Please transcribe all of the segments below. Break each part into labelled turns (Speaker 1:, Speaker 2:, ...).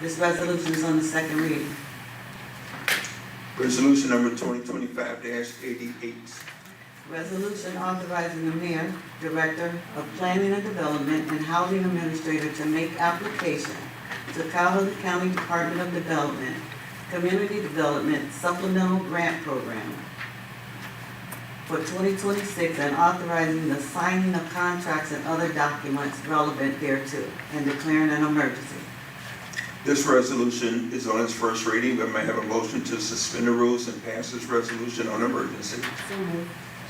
Speaker 1: This resolution is on the second reading.
Speaker 2: Resolution number twenty twenty-five eighty-eight.
Speaker 1: Resolution authorizing the mayor, director of planning and development, and housing administrator to make application to Calhoun County Department of Development, Community Development Supplemental Grant Program for twenty twenty-six and authorizing the signing of contracts and other documents relevant thereto and declaring an emergency.
Speaker 2: This resolution is on its first reading, but may I have a motion to suspend the rules and pass this resolution on emergency.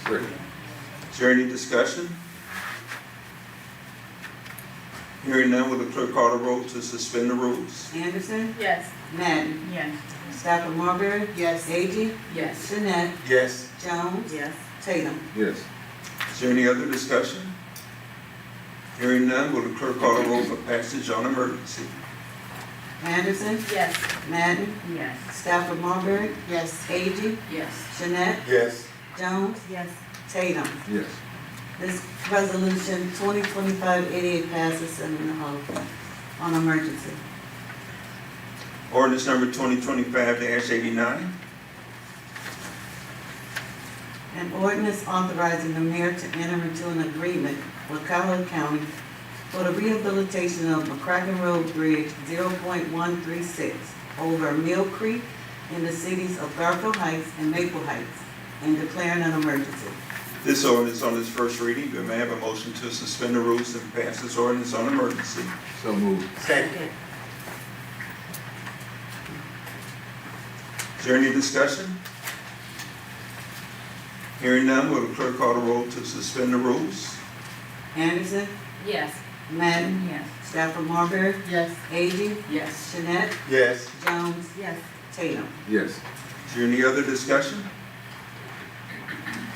Speaker 2: Is there any discussion? Hearing none, will the clerk call the roll to suspend the rules?
Speaker 1: Anderson,
Speaker 3: Yes.
Speaker 1: Madden,
Speaker 3: Yes.
Speaker 1: Stafford Marbury,
Speaker 3: Yes.
Speaker 1: Agee,
Speaker 3: Yes.
Speaker 1: Jeanette,
Speaker 2: Yes.
Speaker 1: Jones,
Speaker 3: Yes.
Speaker 1: Tatum.
Speaker 4: Yes.
Speaker 2: Is there any other discussion? Hearing none, will the clerk call the roll for passage on emergency?
Speaker 1: Anderson,
Speaker 3: Yes.
Speaker 1: Madden,
Speaker 3: Yes.
Speaker 1: Stafford Marbury,
Speaker 3: Yes.
Speaker 1: A.G.
Speaker 3: Yes.
Speaker 1: Jeanette,
Speaker 2: Yes.
Speaker 1: Jones,
Speaker 3: Yes.
Speaker 1: Tatum.
Speaker 4: Yes.
Speaker 1: This resolution 2025-88 passes in an hour on emergency.
Speaker 2: Ordinance number twenty twenty-five eighty-nine.
Speaker 1: An ordinance authorizing the mayor to enter into an agreement with Calhoun County for the rehabilitation of McCracken Road Bridge 0.136 over Mill Creek in the cities of Garfield Heights and Maple Heights and declaring an emergency.
Speaker 2: This ordinance on its first reading, but may I have a motion to suspend the rules and pass this ordinance on emergency?
Speaker 4: So moved.
Speaker 3: Second.
Speaker 2: Is there any discussion? Hearing none, will the clerk call the roll to suspend the rules?
Speaker 1: Anderson,
Speaker 3: Yes.
Speaker 1: Madden,
Speaker 3: Yes.
Speaker 1: Stafford Marbury,
Speaker 3: Yes.
Speaker 1: A.G.
Speaker 3: Yes.
Speaker 1: Jeanette,
Speaker 2: Yes.
Speaker 1: Jones,
Speaker 3: Yes.
Speaker 1: Tatum.
Speaker 4: Yes.
Speaker 2: Is there any other discussion?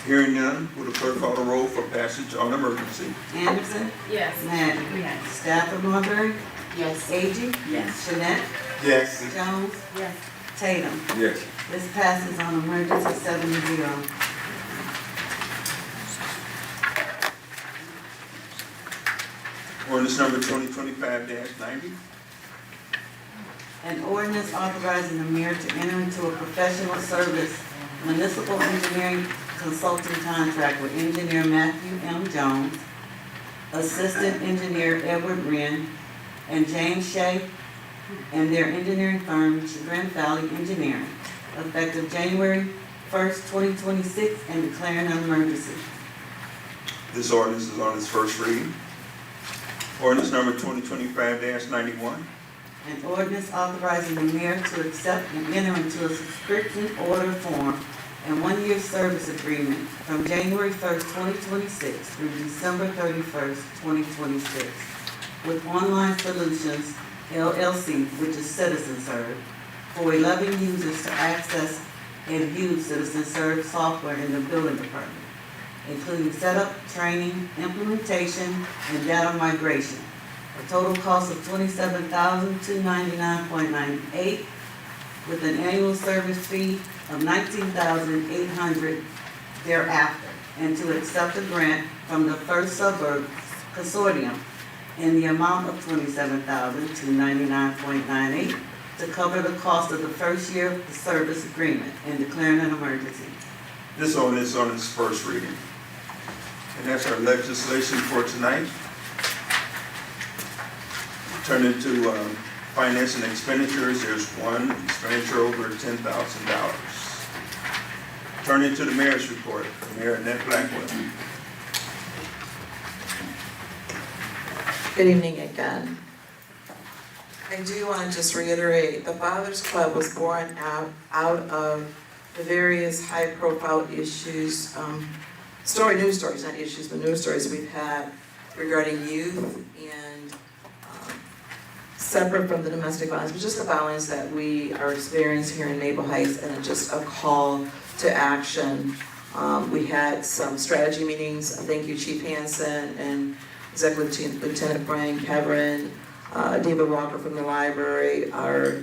Speaker 2: Hearing none, will the clerk call the roll for passage on emergency?
Speaker 1: Anderson,
Speaker 3: Yes.
Speaker 1: Madden,
Speaker 3: Yes.
Speaker 1: Stafford Marbury,
Speaker 3: Yes.
Speaker 1: A.G.
Speaker 3: Yes.
Speaker 1: Jeanette,
Speaker 2: Yes.
Speaker 1: Jones,
Speaker 3: Yes.
Speaker 1: Tatum.
Speaker 4: Yes.
Speaker 1: This passes on emergency seven to zero.
Speaker 2: Ordinance number twenty twenty-five ninety.
Speaker 1: An ordinance authorizing the mayor to enter into a professional service municipal engineering consulting contract with engineer Matthew M. Jones, assistant engineer Edward Wren, and James Shea, and their engineering firm Chagrin Valley Engineering, effective January first, twenty twenty-six, and declaring an emergency.
Speaker 2: This ordinance is on its first reading. Ordinance number twenty twenty-five ninety-one.
Speaker 1: An ordinance authorizing the mayor to accept and enter into a subscription order form and one-year service agreement from January first, twenty twenty-six through December thirty-first, twenty twenty-six with Online Solutions LLC, which is CitizenServe, for eleven users to access and use CitizenServe software in the building department, including setup, training, implementation, and data migration. A total cost of twenty-seven thousand, two ninety-nine point nine eight, with an annual service fee of nineteen thousand, eight hundred thereafter, and to accept a grant from the First Suburb Consortium in the amount of twenty-seven thousand, two ninety-nine point nine eight to cover the cost of the first year of the service agreement and declaring an emergency.
Speaker 2: This ordinance is on its first reading. And that's our legislation for tonight. Turn into um, finance and expenditures, there's one expenditure over ten thousand dollars. Turn into the mayor's report, Mayor Annette Blackwell.
Speaker 5: Good evening again. I do want to just reiterate, the Fathers Club was born out, out of the various high-profile issues, um, story, news stories, not issues, but news stories we've had regarding youth and, um, separate from the domestic violence, but just the violence that we are experiencing here in Maple Heights and just a call to action. Um, we had some strategy meetings, thank you Chief Hansen and Executive Lieutenant- Lieutenant Brian Kevin, uh, David Walker from the library, our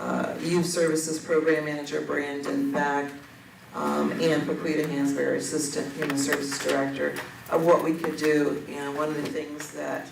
Speaker 5: uh, Youth Services Program Manager Brandon Beck, um, and Paquita Hansberry, Assistant Human Services Director, of what we could do. And one of the things that